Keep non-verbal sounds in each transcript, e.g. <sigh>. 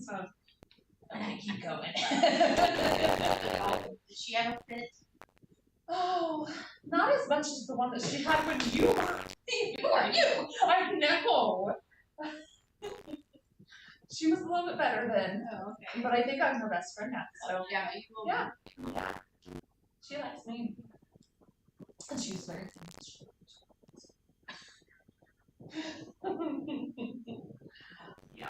so I'm gonna keep going. Did she ever fit? Oh, not as much as the one that she had when you were you are you. I know. she was a little bit better then, Oh, okay. but I think I'm her best friend now. So yeah, you will. Yeah. she likes me, and she's very. yeah.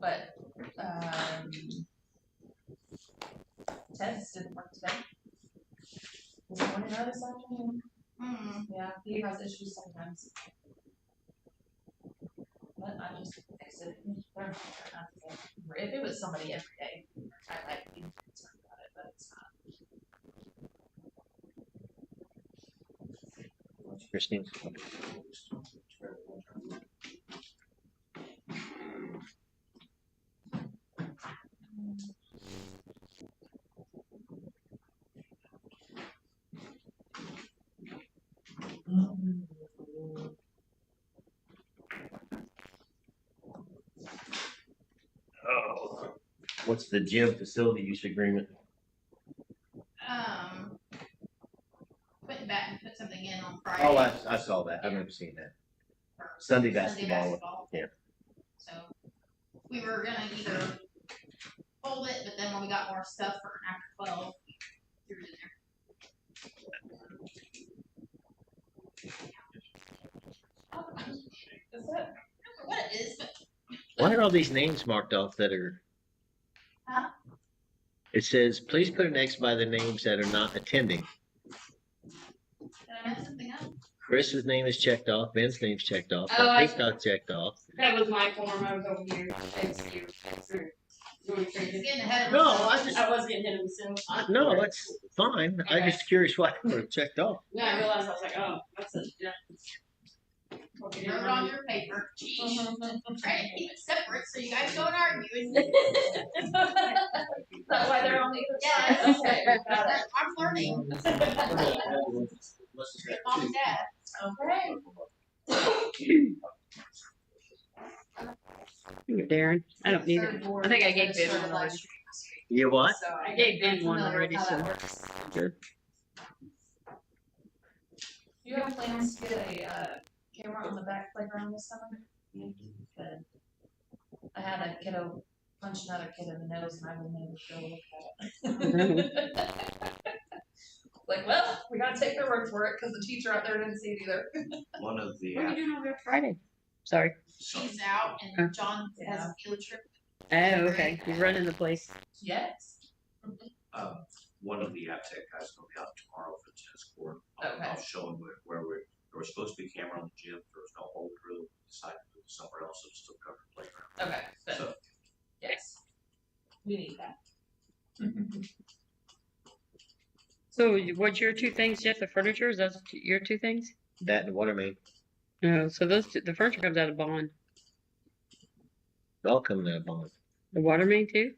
But um, Ted's didn't work today. This morning or this afternoon. Hmm. Yeah, he has issues sometimes. But I just fix it. They're not gonna have to get- If it was somebody every day, I might be concerned about it, but it's not. Christine. Oh. What's the gym facility use agreement? Um. Went back and put something in on Friday. Oh, I, I saw that. I've never seen that. for Sunday Sunday basketball. basketball. yeah. So, we were gonna either fold it, but then when we got more stuff for after twelve, we threw it in there. Is it? I don't know what it is, but Why are all these names marked off that are? Huh? It says, please put an X by the names that are not attending. did I mess something up? Chris's name is checked off, Ben's name's checked off, Oh, I- Marty's not checked off. That was my form. I was over here. Thanks to you. Sure. You want me to It's trade it? getting ahead of No, myself. I just- I was getting hit myself. I- Uh, No, that's fine. I'm just curious why they were checked off. Then I realized I was like, oh, that's a yeah. Okay, Wrote never it on mind. your paper, Jeez. Uh-huh. trying to keep it separate so you guys don't argue. and- <laughs> Is that why they're on the other side? Yes. Okay, got it. I'm learning, mom and dad. Okay. Darren, I don't need it. Third board I think I gave administrator Ben one already. last You year, what? so I I'm gave Ben one familiar already, with how so. that works. Do you have plans to get a, uh, camera on the back playground this summer? Mm-hmm. Good. I had a kiddo punch another kid in the nose and I would never go look at it. <laughs> Like, well, we gotta take their word for it, cause the teacher out there didn't see it either. One of the, What are you doing over there Friday? Sorry. She's out and John has a field trip. Oh, okay. He's running the place. Yes. um, one of the app tech guys will be out tomorrow for the tennis court. I'll- Okay. I'll show him where, where we're, there was supposed to be a camera on the gym, there was no hold through, decided to move somewhere else, it's still covered playground. Okay, good, So, yes. We need <laughs> that. So what's your two things, Jeff? The furniture, is that your two things? That and water main. No, so those, two- the furniture comes out of bond. All coming out of bond. The water main too?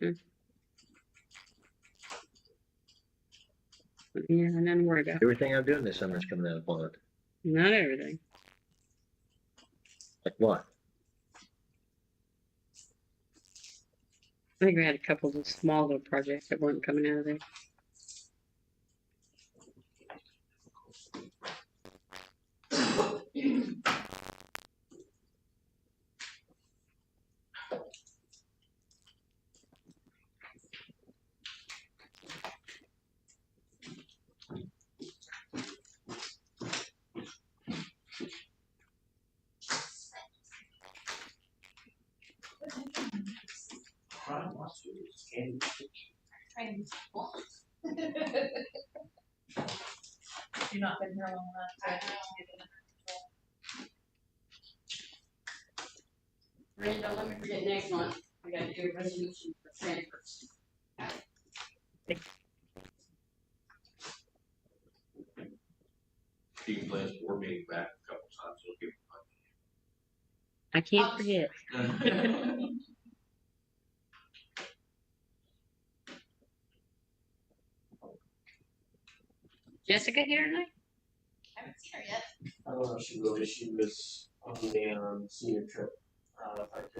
Mm. Yeah, nothing to worry about. Everything I'm doing this summer is coming out of bond. Not everything. Like what? I think we had a couple of small little projects that weren't coming out of there. Brian wants to, it's candy. Trying to You've not been here long enough to. Randy, don't let me forget next month. We gotta do a resolution for transfers. Dean plans board meeting back a couple times, it'll give I can't Oh. forget. him. Jessica here tonight? I haven't seen her yet. I don't know if she really, she was on the um, senior trip, uh, if I could